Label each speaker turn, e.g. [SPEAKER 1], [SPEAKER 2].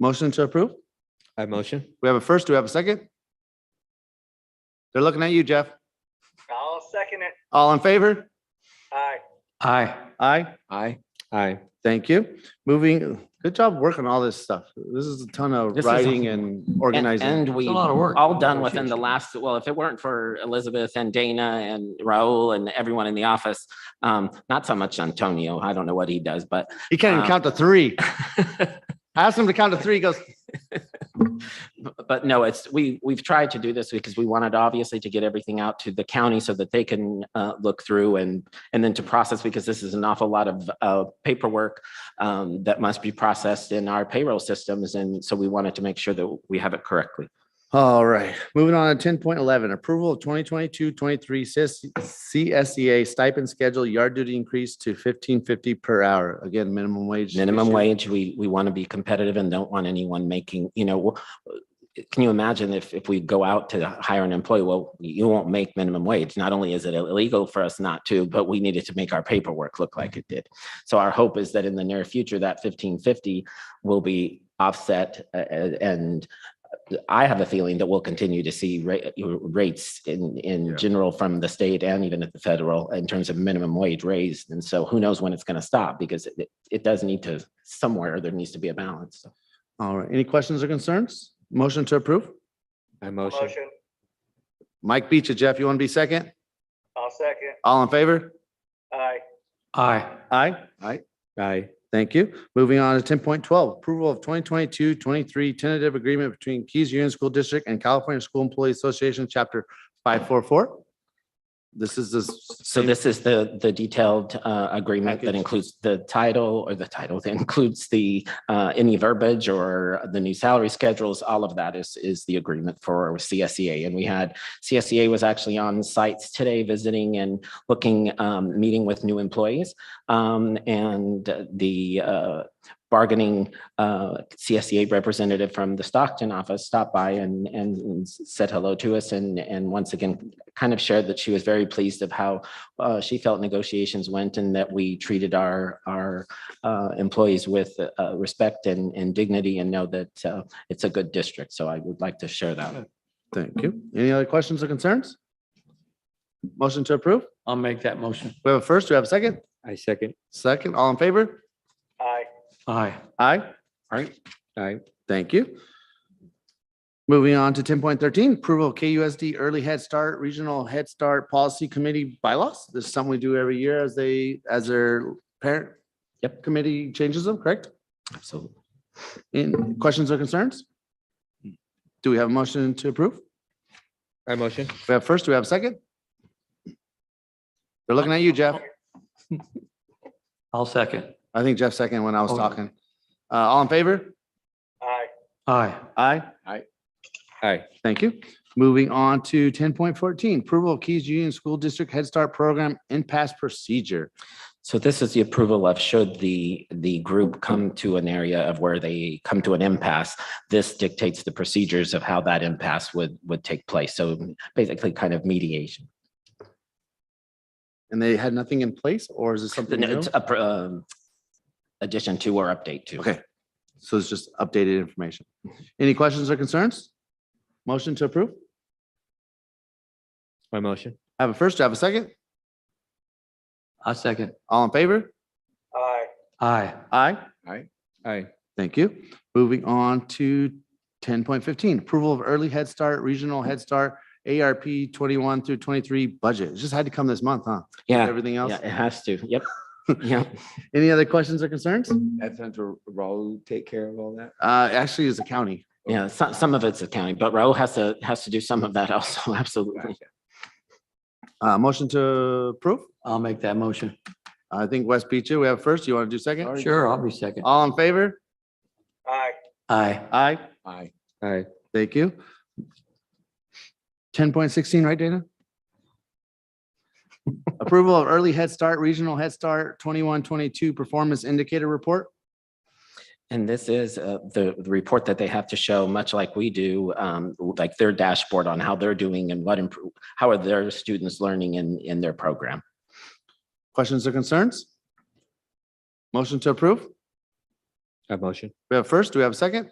[SPEAKER 1] Motion to approve?
[SPEAKER 2] I motion.
[SPEAKER 1] We have a first, do we have a second? They're looking at you, Jeff.
[SPEAKER 3] I'll second it.
[SPEAKER 1] All in favor?
[SPEAKER 3] Aye.
[SPEAKER 1] Aye. Aye.
[SPEAKER 2] Aye. Aye.
[SPEAKER 1] Thank you. Moving, good job working all this stuff. This is a ton of
[SPEAKER 4] This is-
[SPEAKER 1] writing and
[SPEAKER 4] And-
[SPEAKER 1] organizing.
[SPEAKER 4] And we,
[SPEAKER 5] a lot of work.
[SPEAKER 4] all done within the last, well, if it weren't for Elizabeth and Dana and Raul and everyone in the office, um, not so much Antonio, I don't know what he does, but
[SPEAKER 1] He can't even
[SPEAKER 4] Wow.
[SPEAKER 1] count to three. I asked him to count to three, he goes,
[SPEAKER 4] but no, it's, we, we've tried to do this because we wanted obviously to get everything out to the county so that they can, uh, look through and, and then to process, because this is an awful lot of, uh, paperwork, um, that must be processed in our payroll systems. And so we wanted to make sure that we have it correctly.
[SPEAKER 1] All right, moving on to ten point eleven, approval of 2022-23 CIS CSEA E stipend schedule, yard duty increase to fifteen fifty per hour. Again, minimum wage.
[SPEAKER 4] minimum
[SPEAKER 1] issue.
[SPEAKER 4] wage, we, we want to be competitive and don't want anyone making, you know, w- can you imagine if, if we go out to hire an employee, well, you won't make minimum wage. Not only is it illegal for us not to, but we needed to make our paperwork look like it did. So our hope is that in the near future, that fifteen fifty will be offset uh, uh, and I have a feeling that we'll continue to see ra- rates in,
[SPEAKER 1] Yeah.
[SPEAKER 4] in general from the state and even at the federal in terms of minimum wage raised. And so who knows when it's going to stop because it- it, it does need to, somewhere there needs to be a balance. So
[SPEAKER 1] All right, any questions or concerns? Motion to approve?
[SPEAKER 2] I motion.
[SPEAKER 3] Motion.
[SPEAKER 1] Mike Beach, Jeff, you want to be second?
[SPEAKER 3] I'll second.
[SPEAKER 1] All in favor?
[SPEAKER 3] Aye.
[SPEAKER 5] Aye.
[SPEAKER 1] Aye. Aye.
[SPEAKER 2] Aye.
[SPEAKER 1] Thank you. Moving on to ten point twelve, approval of 2022-23 tentative agreement between Keys Union School District and California School Employees Association, chapter five four four. This is the.
[SPEAKER 4] so this is the, the detailed uh, agreement that
[SPEAKER 1] Package.
[SPEAKER 4] includes the title or the title that includes the, uh, any verbiage or the new salary schedules, all of that is, is the agreement for CSEA. And we had, CSEA was actually on sites today visiting and looking, um, meeting with new employees. Um, and the, uh, bargaining, uh, CSEA representative from the Stockton office stopped by and, and said hello to us. And, and once again, kind of shared that she was very pleased of how, uh, she felt negotiations went and that we treated our, our, uh, employees with, uh, respect and, and dignity and know that, uh, it's a good district. So I would like to share that.
[SPEAKER 1] Thank you. Any other questions or concerns? Motion to approve?
[SPEAKER 5] I'll make that motion.
[SPEAKER 1] We have a first, we have a second?
[SPEAKER 2] I second.
[SPEAKER 1] Second, all in favor?
[SPEAKER 3] Aye.
[SPEAKER 5] Aye.
[SPEAKER 1] Aye.
[SPEAKER 2] Aye.
[SPEAKER 1] Thank you. Moving on to ten point thirteen, approval of KUSD Early Head Start Regional Head Start Policy Committee bylaws. This is something we do every year as they, as their parent
[SPEAKER 4] Yep.
[SPEAKER 1] committee changes them, correct?
[SPEAKER 4] Absolutely.
[SPEAKER 1] Any questions or concerns? Do we have a motion to approve?
[SPEAKER 2] I motion.
[SPEAKER 1] We have first, we have second? They're looking at you, Jeff.
[SPEAKER 5] I'll second.
[SPEAKER 1] I think Jeff second when I was
[SPEAKER 5] Oh.
[SPEAKER 1] talking. Uh, all in favor?
[SPEAKER 3] Aye.
[SPEAKER 5] Aye.
[SPEAKER 1] Aye.
[SPEAKER 2] Aye.
[SPEAKER 1] Thank you. Moving on to ten point fourteen, approval of Keys Union School District Head Start Program and Pass Procedure.
[SPEAKER 4] So this is the approval of should the, the group come to an area of where they come to an impasse. This dictates the procedures of how that impasse would, would take place. So basically kind of mediation.
[SPEAKER 1] And they had nothing in place or is this something new?
[SPEAKER 4] It's a pr- um, Addition to or update to.
[SPEAKER 1] Okay. So it's just updated information. Any questions or concerns? Motion to approve?
[SPEAKER 2] I motion.
[SPEAKER 1] I Have a first, I have a second?
[SPEAKER 5] I second.
[SPEAKER 1] All in favor?
[SPEAKER 3] Aye.
[SPEAKER 5] Aye.
[SPEAKER 1] Aye.
[SPEAKER 2] Aye.
[SPEAKER 1] Thank you. Moving on to ten point fifteen, approval of early Head Start, regional Head Start, ARP twenty-one through twenty-three budget. It just had to come this month, huh?
[SPEAKER 4] Yeah,
[SPEAKER 1] Everything else?
[SPEAKER 4] yeah, it has to. Yep. Yeah.
[SPEAKER 1] Any other questions or concerns?
[SPEAKER 2] That's under Raul take care of all that.
[SPEAKER 1] Uh, actually, it's a county.
[SPEAKER 4] Yeah. Some, some of it's accounting, but Raul has to, has to do some of that also. Absolutely.
[SPEAKER 1] Uh, motion to approve.
[SPEAKER 5] I'll make that motion.
[SPEAKER 1] I think West Beach, we have first. You want to do second?
[SPEAKER 5] Sure, I'll be second.
[SPEAKER 1] All in favor?
[SPEAKER 3] Aye.
[SPEAKER 5] Aye.
[SPEAKER 1] Aye.
[SPEAKER 2] Aye. Aye.
[SPEAKER 1] Thank you. Ten point sixteen, right, Dana? Approval of early Head Start, Regional Head Start twenty-one, twenty-two Performance Indicator Report.
[SPEAKER 4] And this is uh, the, the report that they have to show, much like we do, um, like their dashboard on how they're doing and what improve, how are their students learning in, in their program.
[SPEAKER 1] Questions or concerns? Motion to approve?
[SPEAKER 2] I motion.
[SPEAKER 1] We have first, do we have a second?